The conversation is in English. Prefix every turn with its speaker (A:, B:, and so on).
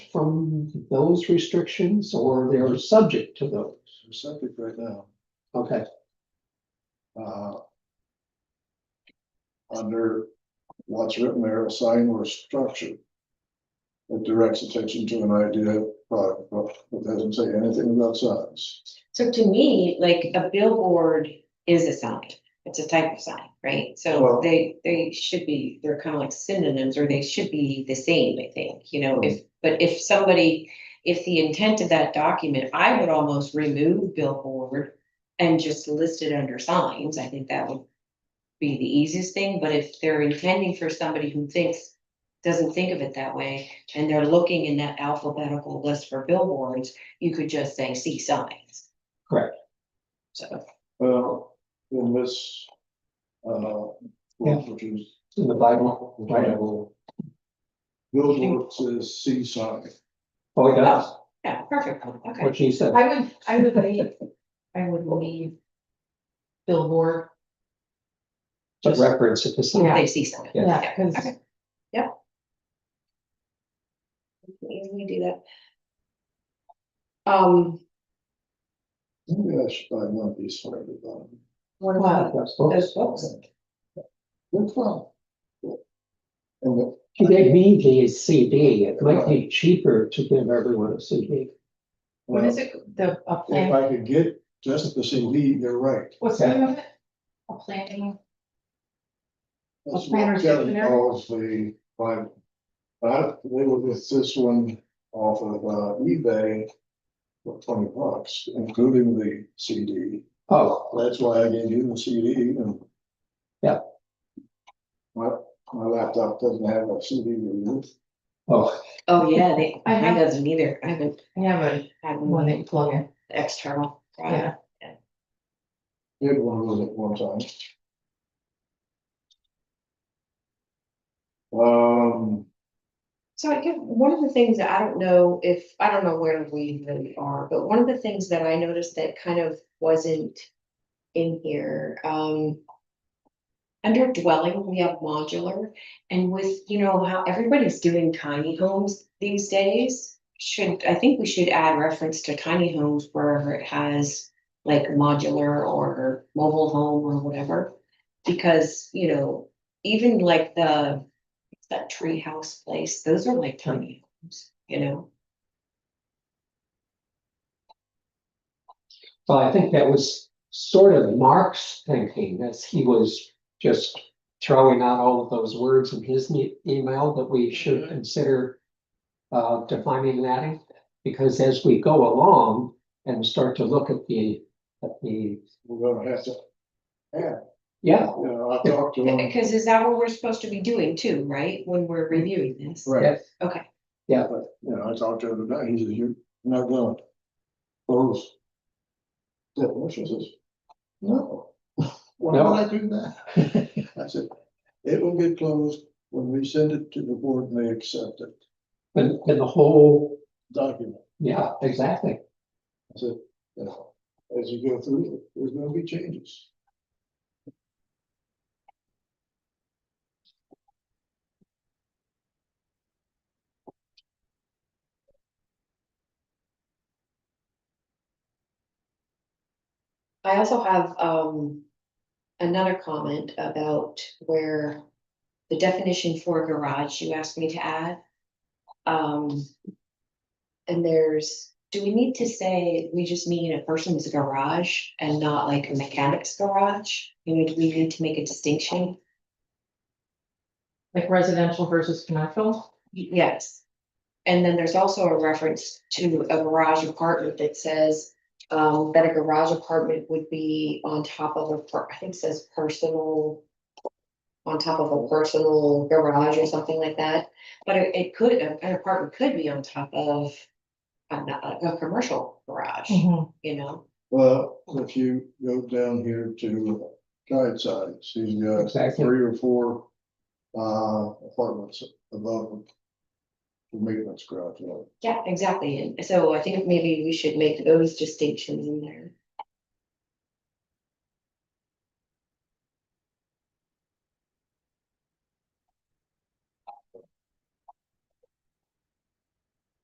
A: from those restrictions or they're subject to those?
B: We're subject right now,
A: Okay,
B: uh. Under what's written there, a sign or structure. That directs attention to an idea, product, but it doesn't say anything about signs.
C: So to me, like a billboard is a sign, it's a type of sign, right? So
B: Well-
C: they, they should be, they're kind of like synonyms, or they should be the same, I think, you know, if, but if somebody. If the intent of that document, I would almost remove billboard and just list it under signs, I think that would. Be the easiest thing, but if they're intending for somebody who thinks, doesn't think of it that way, and they're looking in that alphabetical list for billboards. You could just say see signs.
A: correct.
C: So,
B: Well, in this. Uh,
A: Yeah.
B: which is,
A: In the Bible, right?
B: billboard says C sign.
A: Oh, it does,
C: yeah, perfect, okay.
A: what she said.
D: I would, I would leave, I would leave billboard.
A: But reference it to some,
D: Yeah.
C: They see signs.
A: Yeah.
D: Yeah, because
C: Okay. Easily do that.
D: um,
B: Maybe I should buy one of these for everybody.
C: What
D: about
C: those books?
B: Good fun. And the-
A: they need the CD, it might be cheaper to give everyone a CD.
D: what is it, the, a
B: If
D: plan,
B: I could get just the CD, they're right.
D: what's the name of it? A planning,
B: That's
D: A planner's
B: what Kevin
D: dictionary?
B: calls the Bible. But they were with this one off of uh, eBay for twenty bucks, including the CD.
A: Oh,
B: That's why I gave you the CD and.
A: Yeah.
B: My, my laptop doesn't have a CD reader.
A: oh,
C: Oh, yeah, they,
D: I
C: mine
D: have-
C: doesn't either, I haven't
D: I have a,
C: had
D: one that
C: one
D: you plug in,
C: external.
D: yeah,
B: Did one of those at one time. Um,
C: So I guess one of the things that I don't know if, I don't know where we really are, but one of the things that I noticed that kind of wasn't in here, um. Under dwelling, we have modular and with, you know, how everybody's doing tiny homes these days. Should, I think we should add reference to tiny homes wherever it has like modular or mobile home or whatever. Because, you know, even like the, it's that tree house place, those are like tiny homes, you know?
A: well, I think that was sort of Mark's thinking, as he was just throwing out all of those words in his ne- email that we should
C: Mhm.
A: consider uh, defining that, in. because as we go along and start to look at the, at the,
B: we're gonna have to,
A: yeah,
B: you know, I talked to him.
C: Because is that what we're supposed to be doing too, right, when we're reviewing this?
B: Right,
C: Okay,
A: yeah,
B: but, you know, I talked to him about, it. he says, you're not going. to Those. Definitions is, no. Why would I do that? I said, it will get closed when we send it to the board and they accept it,
A: and, and the whole,
B: document.
A: yeah, exactly.
B: I said, you know, as you go through, it, there's gonna be changes.
C: I also have, um, another comment about where the definition for garage you asked me to add. Um, and there's, do we need to say, we just mean a person's garage and not like a mechanic's garage? You know, do we need to make a distinction?
D: like residential versus commercial.
C: Yes. And then there's also a reference to a garage apartment that says, um, that a garage apartment would be on top of a, per- I think it says personal. On top of a personal garage or something like that, but it, it could, an apartment could be on top of. A, a, a commercial garage,
D: Mm-hmm.
C: you know,
B: Well, if you go down here to guide sides, he's got
A: Exactly.
B: three or four uh apartments above him. the Maintenance garage, you know.
C: yeah, exactly, and so I think maybe we should make those distinctions in there.